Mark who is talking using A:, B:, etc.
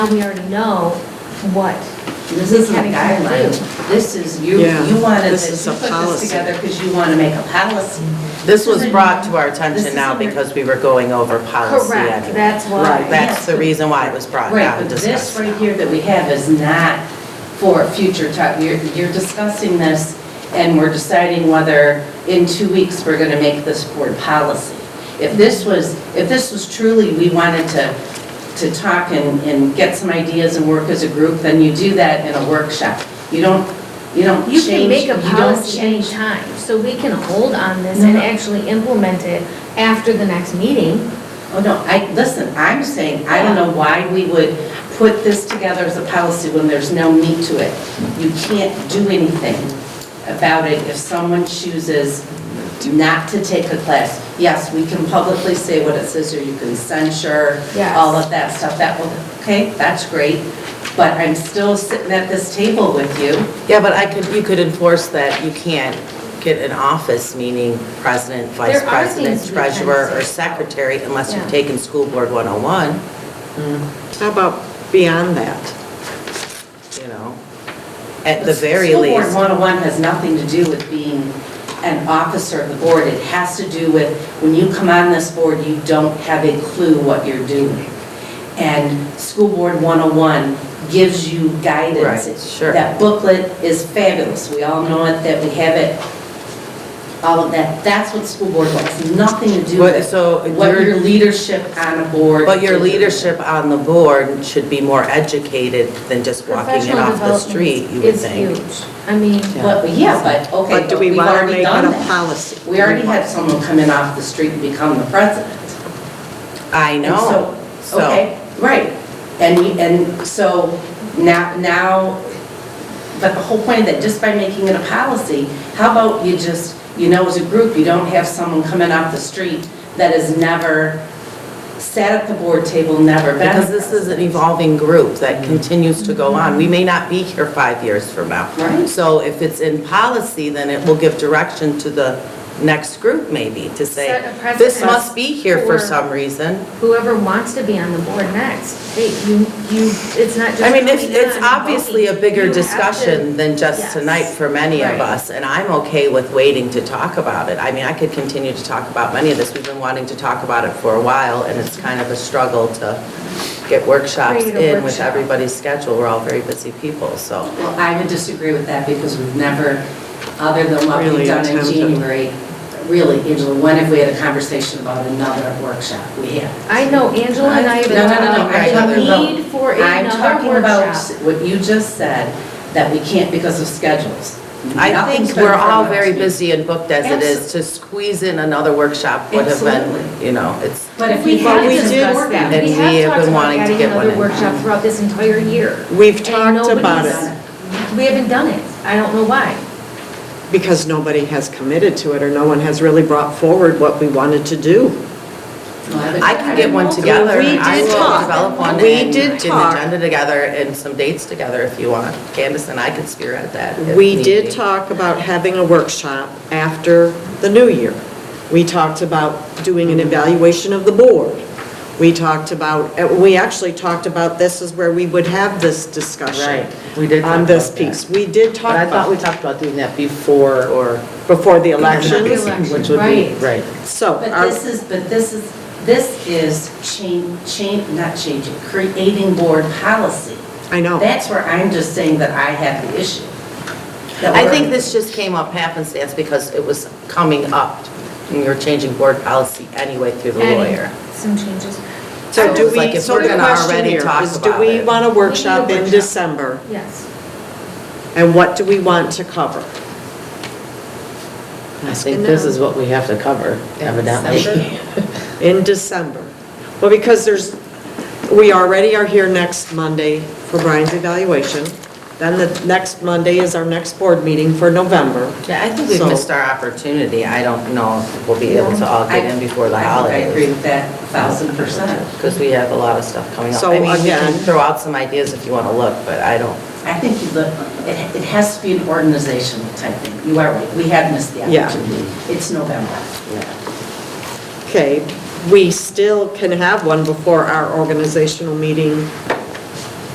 A: Now we already know what.
B: This isn't a
A: we can
B: guideline.
A: do.
B: This is, you,
C: Yeah,
B: you wanted,
C: this
B: to-
C: is
B: you
C: a
B: put this
C: policy.
B: together because you want to make a policy.
D: This was brought to our attention now
B: This is-
D: because we were going over policy.
A: Correct,
D: anyway.
A: that's
C: Right,
A: why.
D: That's the reason why it was brought
B: Right,
D: out
B: but
D: and
B: this
D: discussed.
B: right here that we have is not for future time. You're, you're discussing this and we're deciding whether in two weeks we're going to make this board policy. If this was, if this was truly, we wanted to, to talk and, and get some ideas and work as a group, then you do that in a workshop. You don't, you don't
A: You
B: change.
A: can make a
B: don't
A: policy
B: change-
A: anytime, so we can hold on this and
B: No, no.
A: actually implement it after the next meeting.
B: Oh, no, I, listen, I'm saying, I don't know why we would put this together as a policy when there's no meat to it. You can't do anything about it if someone chooses not to take a class. Yes, we can publicly say what it says, or you can censure,
A: Yes.
B: all of that stuff, that will, okay, that's great, but I'm still sitting at this table with you.
D: Yeah, but I could, you could enforce that you can't get an office, meaning president, vice
A: There are things
D: president,
A: we can
D: treasurer, or
A: say.
D: secretary unless
A: Yeah.
D: you've taken school board 101, Mm.
C: How about beyond that?
D: you know? At the very
B: School Board
D: least,
B: 101 has nothing to do with being an officer of the board. It has to do with, when you come on this board, you don't have a clue what you're doing. And School Board 101 gives you guidance.
D: Right, sure.
B: That booklet is fabulous. We all know it, that we have it, all of that. That's what School Board wants, nothing to do
D: But-
B: with
D: so
B: what
D: your-
B: your leadership on a board.
D: but your
B: did.
D: leadership on the board should be more educated than just walking it
A: Professional
D: off the
A: development
D: street, you would
A: is
D: think.
A: huge. I mean,
B: But, yeah, but, okay,
C: But do
B: but
C: we
B: we've
C: want to make
B: already
C: it
B: done
C: a
B: that.
C: policy?
B: We already had someone come in off the street and become the president.
D: I
B: And
D: know,
B: so-
D: so,
B: Okay, right. And, we- and so now, now, but the whole point of that, just by making it a policy, how about you just, you know, as a group, you don't have someone coming off the street that has never sat at the board table, never been.
D: because this is an evolving group that continues to go on. We may not be here five years from now.
B: Right.
D: So if it's in policy, then it will give direction to the next group maybe to say,
A: Set a precedent
D: this must be here
A: for-
D: for some reason.
A: whoever wants to be on the board next, they, you, you, it's not just.
D: I mean, it's,
A: coming on
D: it's
A: and
D: obviously a
A: voting.
D: bigger
A: You have to-
D: discussion than just
A: Yes.
D: tonight for many of
A: Right.
D: us, and I'm okay with waiting to talk about it. I mean, I could continue to talk about many of this, we've been wanting to talk about it for a while, and it's kind of a struggle to get workshops
A: Create a
D: in with
A: workshop.
D: everybody's schedule, we're all very busy people, so.
B: Well, I would disagree with that because we've never, other than what we've
C: Really
B: done in
C: attempted.
B: January, really, Angela, when have we had a conversation about another workshop? We have.
A: I know Angela and I have been
B: No, no, no, no,
A: talking
B: I
A: about
B: talking
A: the
B: about-
A: need for
B: I'm
A: another
B: talking about
A: workshop.
B: what you just said, that we can't because of schedules.
D: I
B: Nothing's
D: think
B: been
D: we're all
B: finalized.
D: very busy and booked as it is, to squeeze in another workshop would have been,
B: Absolutely.
D: you know, it's,
B: But if we
D: But
B: had
D: we
B: discussed
D: did-
B: that.
D: and
A: We
D: we have
A: have talked
D: been
A: about
D: wanting to
A: adding
D: get one
A: another
D: in.
A: workshop throughout this entire year.
C: We've
A: And
C: talked about
A: nobody's-
C: it
A: We haven't done it. I don't know why.
C: because nobody has committed to it or no one has really brought forward what we wanted to do.
D: I can get one together.
C: We
D: I
C: did
D: will
C: talk.
D: develop one
C: We
D: and
C: did
D: get an
C: talk.
D: agenda together and some dates together if you want. Candace and I could spearhead that. if
C: We
D: need be.
C: did talk about having a workshop after the new year. We talked about doing an evaluation of the board. We talked about, uh, we actually talked about this is where we would have this discussion.
E: Right, we did talk
C: On this
E: about that.
C: piece. We did
E: But
C: talk
E: I thought we
C: about,
E: talked about doing that before or,
C: before the
A: Election.
C: elections.
E: which would be,
A: Right.
E: right.
C: So.
B: But
C: our-
B: this is, but this is, this is change, change, not changing, creating board policy.
C: I know.
B: That's where I'm just saying that I have the issue. That
D: I
B: we're-
D: think this just came up happenstance because it was coming up and you're changing board policy anyway through the
A: Adding
D: lawyer.
A: Some changes.
C: So do
D: It's like
C: we,
D: if
C: so
D: we're
C: the
D: gonna
C: question
D: already
C: here
D: talk
C: is, do
D: about
C: we
D: it.
C: want a workshop
A: We need a
C: in
A: workshop.
C: December?
A: Yes.
C: And what do we want to cover?
E: I think this is what we have to cover evidently.
C: in December. Well, because there's, we already are here next Monday for Brian's evaluation. Then the next Monday is our next board meeting for November.
D: Yeah, I think we
C: So-
D: missed our opportunity. I don't know if we'll be able to all get in before the
B: I- I agree
D: holidays.
B: with that thousand percent.
D: Because we have a lot of stuff coming up.
C: So
D: I mean, we can
C: again-
D: throw out some ideas if you want to look, but I don't.
B: I think you look, it, it has to be an organizational type thing. You are right, we have missed the
C: Yeah.
B: opportunity. It's November.
C: Okay, we still can have one before our organizational meeting